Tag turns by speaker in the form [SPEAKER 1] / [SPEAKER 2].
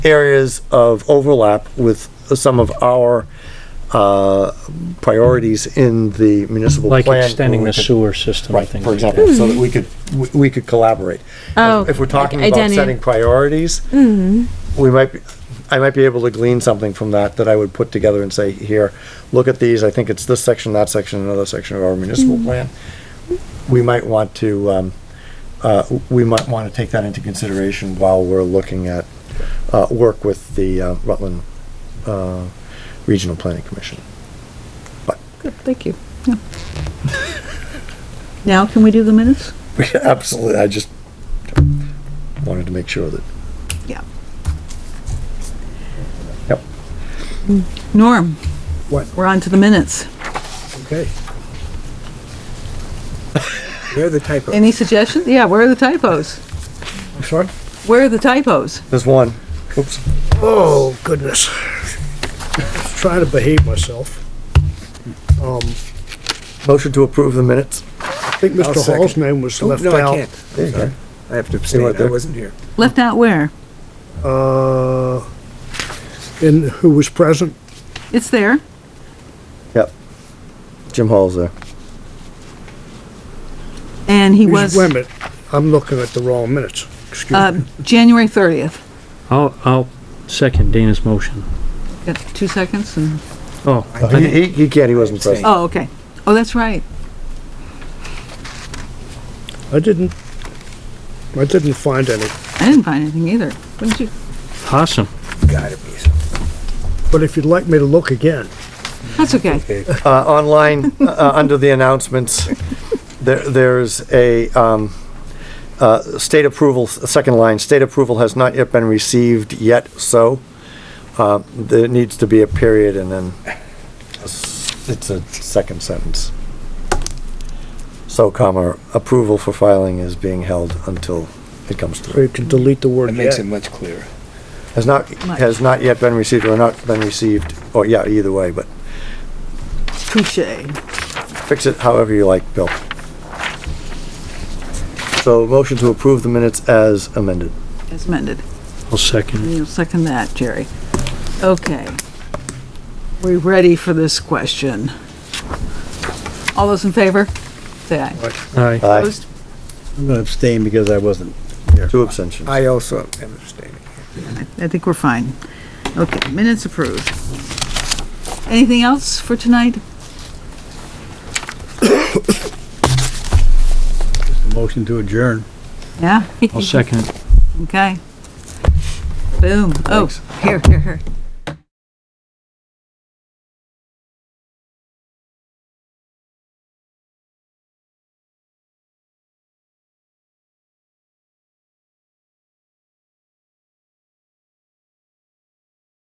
[SPEAKER 1] areas of overlap with some of our uh, priorities in the municipal plan.
[SPEAKER 2] Like extending
[SPEAKER 1] where we
[SPEAKER 2] the
[SPEAKER 1] could-
[SPEAKER 2] sewer system, I
[SPEAKER 1] Right,
[SPEAKER 2] think.
[SPEAKER 1] for example, so that we could, we- we could collaborate.
[SPEAKER 3] Hmm. Oh,
[SPEAKER 1] If we're talking
[SPEAKER 3] like Mm-hmm.
[SPEAKER 1] about
[SPEAKER 3] identi-
[SPEAKER 1] setting priorities, we might, be- I might be able to glean something from that that I would put together and say, here, look at these, I think it's this section, that section, another section of our municipal
[SPEAKER 3] Mm-hmm.
[SPEAKER 1] plan. We might want to, um, uh, we might want to take that into consideration while we're looking at, uh, work with the uh, Rutland, uh, Regional Planning Commission.
[SPEAKER 3] Good, thank you.
[SPEAKER 4] Now can we do the minutes?
[SPEAKER 1] Absolutely, I just wanted to make sure that,
[SPEAKER 4] Yeah.
[SPEAKER 1] yep.
[SPEAKER 4] Hmm. Norm?
[SPEAKER 5] What?
[SPEAKER 4] We're on to the minutes.
[SPEAKER 5] Okay. Where are the typos?
[SPEAKER 4] Any suggestions? Yeah, where are the typos?
[SPEAKER 5] I'm sorry?
[SPEAKER 4] Where are the typos?
[SPEAKER 1] There's one. Oops.
[SPEAKER 5] Oh, goodness. Trying to behave myself. Um,
[SPEAKER 1] Motion to approve the minutes.
[SPEAKER 5] I think
[SPEAKER 6] I'll
[SPEAKER 5] Mr.
[SPEAKER 6] second. Oh,
[SPEAKER 5] Hall's name was left
[SPEAKER 6] No, I
[SPEAKER 5] out.
[SPEAKER 6] can't.
[SPEAKER 1] There you go.
[SPEAKER 6] I have to
[SPEAKER 1] They
[SPEAKER 6] abstain.
[SPEAKER 1] weren't there.
[SPEAKER 6] I wasn't here.
[SPEAKER 4] Left out where?
[SPEAKER 5] Uh, and who was present?
[SPEAKER 4] It's there.
[SPEAKER 1] Yep. Jim Hall's there.
[SPEAKER 4] And he
[SPEAKER 5] He's-
[SPEAKER 4] was,
[SPEAKER 5] Wait a minute, I'm looking at the wrong minutes. Excuse
[SPEAKER 4] uh,
[SPEAKER 5] me.
[SPEAKER 4] January 30th.
[SPEAKER 2] I'll, I'll second Dana's motion.
[SPEAKER 4] Got two seconds and,
[SPEAKER 2] Oh,
[SPEAKER 1] He, he, he can't, he wasn't present.
[SPEAKER 4] oh, okay. Oh, that's right.
[SPEAKER 5] I didn't, I didn't find any.
[SPEAKER 4] I didn't find anything either. What did you?
[SPEAKER 2] awesome.
[SPEAKER 6] Gotta be. some-
[SPEAKER 5] But if you'd like me to look again,
[SPEAKER 4] That's okay.
[SPEAKER 1] Uh, online, uh, under the announcements, there, there's a, um, uh, state approval, s- second line, state approval has not yet been received yet, so, uh, there needs to be a period and then a s- it's a second sentence. So comma, approval for filing is being held until it comes
[SPEAKER 5] so
[SPEAKER 1] through.
[SPEAKER 5] you can delete the word
[SPEAKER 6] That makes it
[SPEAKER 5] yet.
[SPEAKER 6] much clearer.
[SPEAKER 1] Has not,
[SPEAKER 4] Much.
[SPEAKER 1] has not yet been received or not been received, or yeah, either way, but
[SPEAKER 4] Touche.
[SPEAKER 1] fix it however you like, Bill. So motion to approve the minutes as amended.
[SPEAKER 4] As amended.
[SPEAKER 2] I'll second.
[SPEAKER 4] And you'll second that, Jerry. Okay. We're ready for this question. All those in favor? Say aye.
[SPEAKER 2] Aye.
[SPEAKER 1] Aye,
[SPEAKER 4] Opposed?
[SPEAKER 7] I'm going to abstain because I wasn't.
[SPEAKER 1] two abstentions.
[SPEAKER 6] I also am abstaining.
[SPEAKER 4] I think we're fine. Okay, minutes approved. Anything else for tonight?
[SPEAKER 7] Motion to adjourn.
[SPEAKER 4] Yeah,
[SPEAKER 2] I'll second.
[SPEAKER 4] okay. Boom. Oh, here, here, here.